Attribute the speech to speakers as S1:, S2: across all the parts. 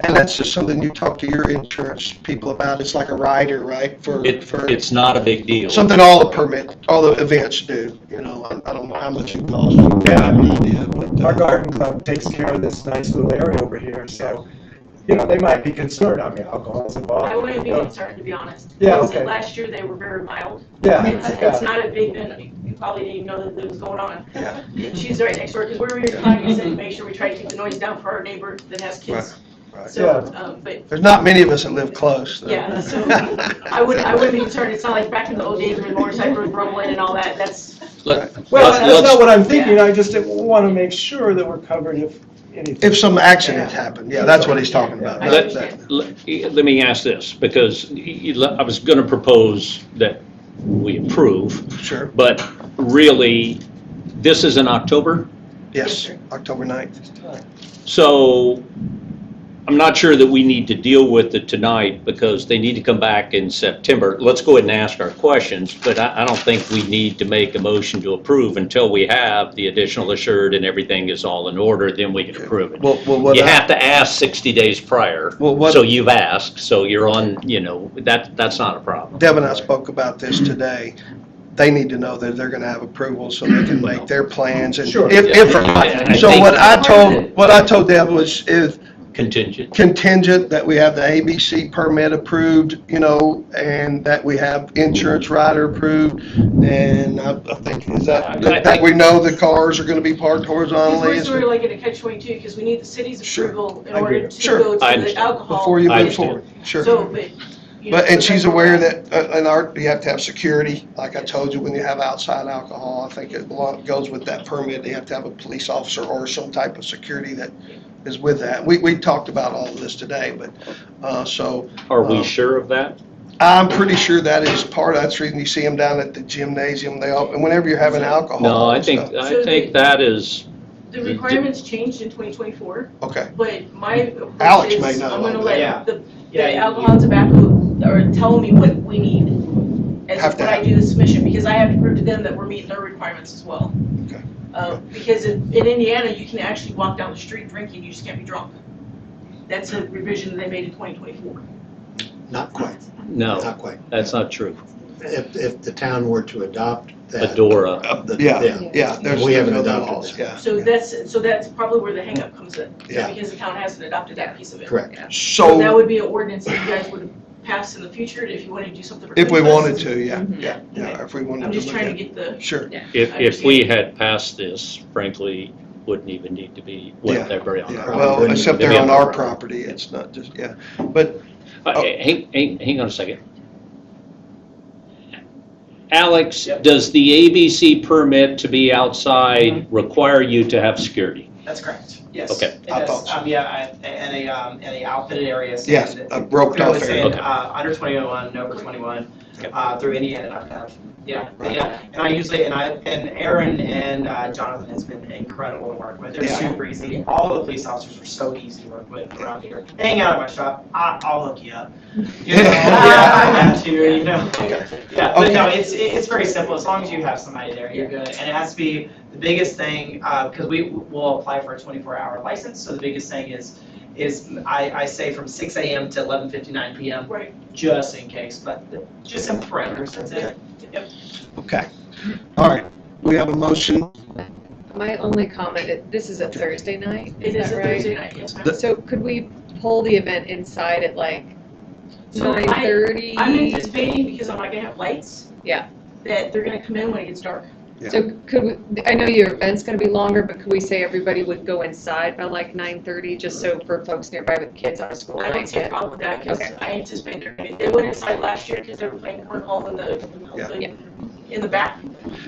S1: And that's just something you talk to your insurance people about. It's like a rider, right? For,
S2: It,
S1: for
S2: it's not a big deal.
S1: something all the permit, all the events do, you know, I I don't know how much it costs. Yeah, I have no idea, but, uh,
S3: Our garden club takes care of this nice little area over here, so, you know, they might be concerned, I mean, alcohol's involved.
S4: I wouldn't be
S3: you know.
S4: concerned, to be honest.
S3: Yeah,
S4: Like I said,
S3: okay.
S4: Last year, they were very mild.
S3: Yeah,
S4: It's, it's
S3: yeah,
S4: not a big, you probably didn't even know that it was going on.
S3: Yeah.
S4: She's right next door, because we were here tonight, we said, make sure we try to keep the noise down for our neighbor that has kids.
S1: right.
S4: So, um, but
S1: There's not many of us that live close. though.
S4: Yeah, so I would, I wouldn't be concerned, it's not like back in the old days when motorcycle was rumbling and all that, that's,
S2: Let-
S3: well,
S2: let-
S3: that's not
S2: let's-
S3: what I'm thinking, I just want to make sure that we're covered if anything.
S1: If some accident happened, yeah, that's what he's talking about.
S4: I
S1: not
S2: Let-
S1: that.
S4: understand.
S2: Let let me ask this, because y- y- I was going to propose that we approve,
S1: Sure,
S2: but really, this is in October,
S1: yes, October 9th.
S2: so I'm not sure that we need to deal with it tonight, because they need to come back in September. Let's go ahead and ask our questions, but I I don't think we need to make a motion to approve until we have the additional assured and everything is all in order, then we can approve it.
S1: Well, well, what
S2: You
S1: I-
S2: have to ask 60 days prior.
S1: Well, what-
S2: So you've asked, so you're on, you know, that, that's not a problem.
S1: Deb and I spoke about this today. They need to know that they're going to have approval so they can make their plans and
S3: Sure.
S1: if, if,
S2: Yeah, I
S1: so
S2: think-
S1: what I told, what I told Deb was is
S2: Contingent.
S1: contingent that we have the ABC permit approved, you know, and that we have insurance rider approved. And I I think, is that,
S2: I- I
S1: that we know the cars are going to be parked horizontally.
S4: because we're really gonna catch twenty-two, because we need the city's
S1: Sure.
S4: approval in
S3: I agree.
S4: order to
S1: Sure.
S4: go
S2: I
S4: to the
S2: understand.
S4: alcohol.
S1: Before you
S2: I
S1: move
S2: understand.
S1: forward,
S4: So,
S1: sure.
S4: but. you know,
S1: But, and she's
S4: sometimes-
S1: aware that, uh, in art, you have to have security, like I told you, when you have outside alcohol, I think it belo- goes with that permit, you have to have a police officer or some type of security that is with that. We, we talked about all of this today, but, uh, so,
S2: Are we
S1: Um,
S2: sure of that?
S1: I'm pretty sure that is part, that's the reason you see them down at the gymnasium, they all, and whenever you're having alcohol.
S2: No, I
S1: and
S2: think,
S1: stuff.
S2: I think that is,
S4: The requirements changed in twenty twenty-four,
S1: Okay,
S4: but my approach
S1: Alex may
S4: is,
S1: not
S4: I'm gonna
S1: like
S5: Yeah.
S4: let the,
S5: Yeah,
S4: the
S5: you-
S4: alcohol and tobacco, or tell me what we need. As
S1: Have to
S4: when I
S1: have-
S4: do the submission, because I have to prove to them that we're meeting their requirements as well.
S1: Okay.
S4: Uh, because in, in Indiana, you can actually walk down the street drinking, you just can't be drunk. That's a revision they made in twenty twenty-four.
S6: Not quite,
S2: no,
S6: not quite.
S2: that's not true.
S6: If, if the town were to adopt that.
S2: Adora.
S1: Uh,
S6: the-
S1: yeah, yeah, there's.
S6: We haven't
S1: there's no
S6: adopted
S1: laws,
S6: that.
S1: Yeah.
S4: So that's, so that's probably where the hangup comes in.
S6: Yeah.
S4: Because the town hasn't adopted that piece of it.
S6: Correct.
S4: So that
S1: So,
S4: would be an ordinance that you guys would pass in the future if you wanted to do something. for
S1: if we
S4: Christmas.
S1: wanted to, yeah, yeah, yeah, if we wanted
S4: Mm-hmm.
S1: to
S4: I'm just
S1: look
S4: trying to
S1: at,
S4: get the,
S1: sure.
S2: If, if we had passed this, frankly, wouldn't even need to be,
S1: Yeah,
S2: wouldn't they be on
S1: Yeah,
S2: our
S1: well,
S6: Wouldn't
S1: except
S2: it be
S1: they're on
S2: on our
S1: our property, it's not just, yeah, but,
S2: Uh,
S1: Oh.
S2: Hang, hang, hang on a second. Alex, does the ABC permit to be outside require you to have security?
S5: That's correct, yes.
S2: Okay.
S5: It
S1: I
S5: does,
S1: thought so.
S5: um, yeah, I- and a, um, and a outfitted area. so
S1: yes,
S5: that-
S1: a uh, roped
S5: Clearly
S1: off area.
S5: saying,
S2: Okay.
S5: uh, under twenty-one, over twenty-one, uh, through Indiana, not that, yeah, but
S1: Right.
S5: yeah. And I usually, and I, and Aaron and uh, Jonathan has been incredible to work with, they're
S1: Yeah.
S5: super easy, all the police officers are so easy to work with around here. Hang out at my shop, I, I'll hook you up. You know, yeah, I got you, you know. Yeah, but no, it's, it's very simple, as long as you have somebody there, you're good, and it has to be, the biggest thing, uh, because we will apply for a twenty-four hour license, so the biggest thing is, is I, I say from six AM to eleven fifty-nine PM,
S4: right,
S5: just in case, but the- just in parameters, that's it.
S1: Okay, all right, we have a motion,
S7: My only comment, it- this is a Thursday night,
S4: it
S7: is
S4: is a
S7: that
S4: Thursday
S7: right?
S4: night, yes, ma'am.
S1: The-
S7: So could we pull the event inside at like
S4: So I-
S7: nine thirty?
S4: I'm anticipating, because I'm not gonna have lights.
S7: Yeah.
S4: That they're gonna come in when it gets dark.
S7: So could, we? I know your event's gonna be longer, but could we say everybody would go inside by like nine thirty, just so for folks nearby with kids out of school
S4: I don't
S7: might
S4: see a
S7: get?
S4: problem with that, because
S7: Okay.
S4: I anticipate they're gonna, they went inside last year, because they were playing cornhole in the,
S1: Yeah.
S7: Yeah.
S4: in the back,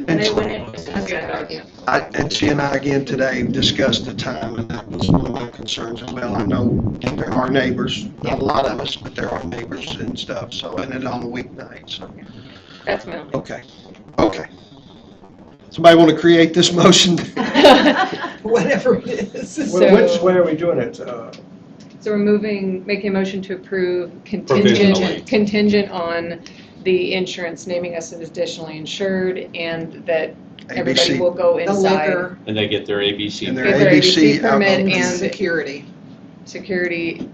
S4: and they went in. as soon as
S7: That's
S4: they
S7: good,
S4: got dark.
S7: yeah.
S1: I, and she and I again today discussed the time, and that was one of my concerns as well, I know there are neighbors, not a lot of us, but there are neighbors and stuff, so, and it's on a weeknight, so,
S7: That's my only.
S1: okay, okay. Somebody want to create this motion?
S7: Whatever it is.
S3: Wh- Which
S7: So,
S3: way are we doing it? Uh,
S7: so we're moving, making a motion to approve
S2: Provisionally.
S7: contingent, contingent on the insurance naming us as additionally insured and that everybody
S1: ABC.
S7: will go
S8: The
S7: inside.
S8: liquor,
S2: And they get their ABC
S1: And their
S7: Get their
S1: ABC
S7: ABC permit
S1: alcohol.
S8: and
S7: and
S8: security.
S7: security